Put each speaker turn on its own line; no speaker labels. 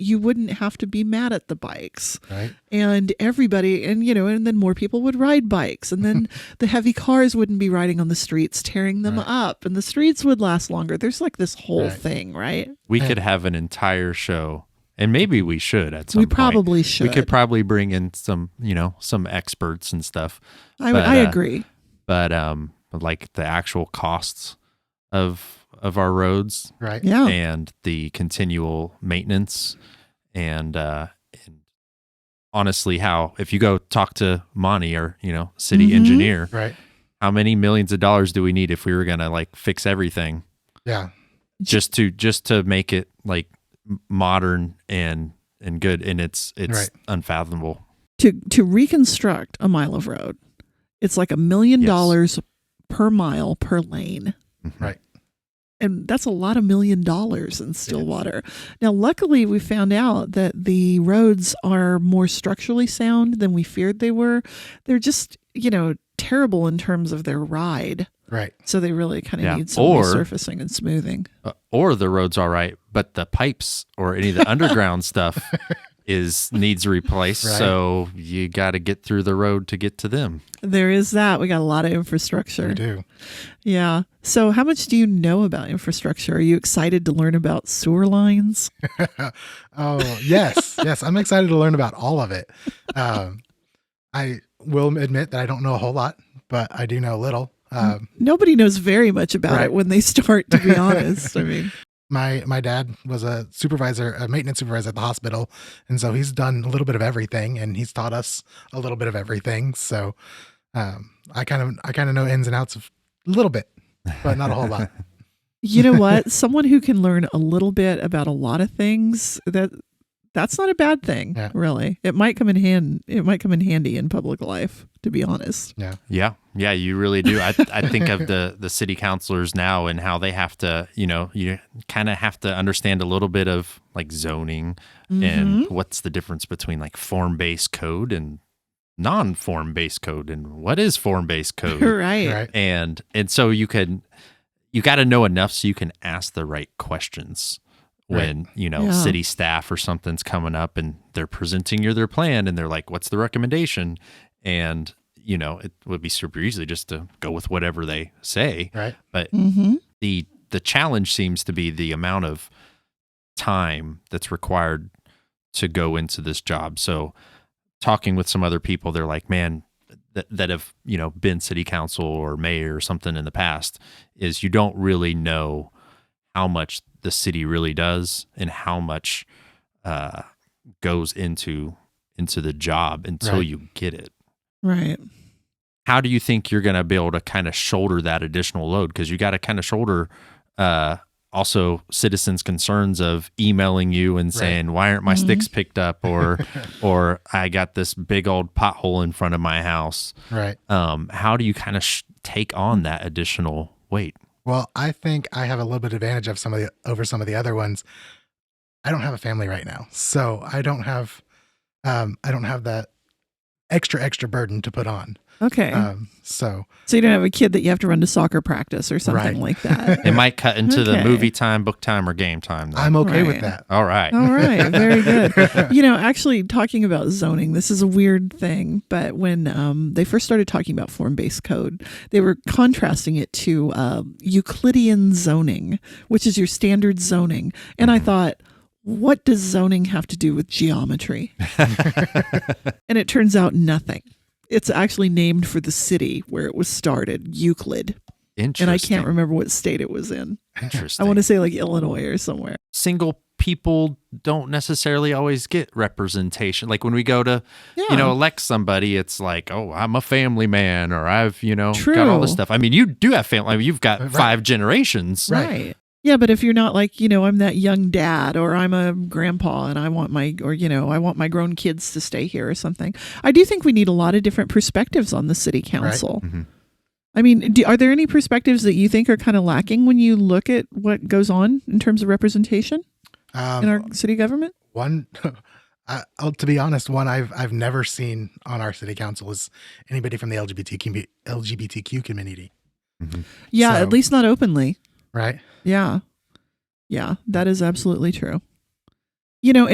you wouldn't have to be mad at the bikes
Right.
and everybody and you know and then more people would ride bikes and then the heavy cars wouldn't be riding on the streets tearing them up and the streets would last longer there's like this whole
Right.
thing right
We could have an entire show, and maybe we should at some.
we
point.
probably should
We could probably bring in some, you know, some experts and stuff.
I,
but,
I
uh,
agree
But um, like the actual costs of of our roads
Right.
yeah
and the continual maintenance, and uh, and honestly, how if you go talk to Monty or you know city
Mhm.
engineer,
Right.
how many millions of dollars do we need if we were gonna like fix everything?
Yeah.
just to just to make it like m- modern and and good and it's it's
Right.
unfathomable
to to reconstruct a mile of road it's like a million
Yes. Mm-hmm.
dollars per mile per lane
Right.
and that's a lot of million dollars in Stillwater. Now, luckily, we found out that the roads are more structurally sound than we feared they were. They're just, you know, terrible in terms of their ride.
Right.
So they really kind of
Yeah.
need some
Or-
resurfacing and smoothing.
Uh, or the road's all right but the pipes or any of the underground stuff is needs replaced
Right.
so you got to get through the road to get to them
There is that. We got a lot of
We
infrastructure.
do.
Yeah. So, how much do you know about infrastructure? Are you excited to learn about sewer lines?
Oh yes, yes. I'm excited to learn about all of it. Um, I will admit that I don't know a whole lot, but I do know a little. Um,
Nobody knows very much about
Right.
it when they start, to be honest. I mean,
my my dad was a supervisor, a maintenance supervisor at the hospital, and so he's done a little bit of everything, and he's taught us a little bit of everything. So um, I kind of I kind of know ins and outs of a little bit, but not a whole lot.
you know what someone who can learn a little bit about a lot of things that that's not a bad thing
Yeah.
really it might come in hand it might come in handy in public life to be honest
yeah yeah you really do i, I think of the the city councilors now and how they have to you know you kind of have to understand a little bit of like zoning and what's the difference between like form based code and non form based code and what is form based
Mhm.
code
right
Right?
and and so you can you got to know enough so you can ask the right questions when you know
Yeah.
city staff or something's coming up and they're presenting you their plan and they're like what's the recommendation and you know it would be super easy just to go with whatever they say
Right?
but
hmm
the the challenge seems to be the amount of time that's required to go into this job. So talking with some other people, they're like, man, that, that have, you know, been city council or mayor or something in the past is you don't really know how much the city really does and how much uh, goes into into the job until
Right.
you get it
right
how do you think you're going to be able to kind of shoulder that additional load? Because you got to kind of shoulder uh, also citizens' concerns of emailing you and
Right.
saying, "Why aren't my
Mhm.
sticks picked up?" or "Or I got this big old pothole in front of my house."
Right.
Um, how do you kind of sh- take on that additional weight?
Well, I think I have a little bit advantage of some of the over some of the other ones. I don't have a family right now, so I don't have um, I don't have that extra extra burden to put on.
okay
Um, so
so you don't have a kid that you have to run to soccer practice or something
uh, Right.
like that
It might cut into the
Okay.
movie time, book time, or game time. Then.
I'm okay with
Right.
that.
All right.
all right very good you know, actually talking about zoning, this is a weird thing, but when um, they first started talking about form based code, they were contrasting it to uh, Euclidean zoning, which is your standard zoning. And
Mm-hmm.
I thought, what does zoning have to do with geometry? and it turns out nothing. It's actually named for the city where it was started, Euclid.
Interesting.
And I can't remember what state it was in. I
Interesting.
want to say like Illinois or somewhere.
single people don't necessarily always get representation. Like when we go to,
Yeah.
you know, elect somebody, it's like, oh, I'm a family man, or I've, you know, got all this
True.
stuff. I mean, you do have family. I mean, you've got
Right.
five generations.
Right.
Yeah, but if you're not like, you know, I'm that young dad or I'm a grandpa and I want my or you know, I want my grown kids to stay here or something. I do think we need a lot of different perspectives on the city council.
Mm-hmm.
Mhm.
I mean, do, are there any perspectives that you think are kind of lacking when you look at what goes on in terms of representation
Um,
in our city government?
one, I, I'll, to be honest, one I've I've never seen on our city council is anybody from the LGBT commu- LGBTQ community,
Yeah,
So-
at least not openly.
right?
Yeah. Yeah, that is absolutely true. You know,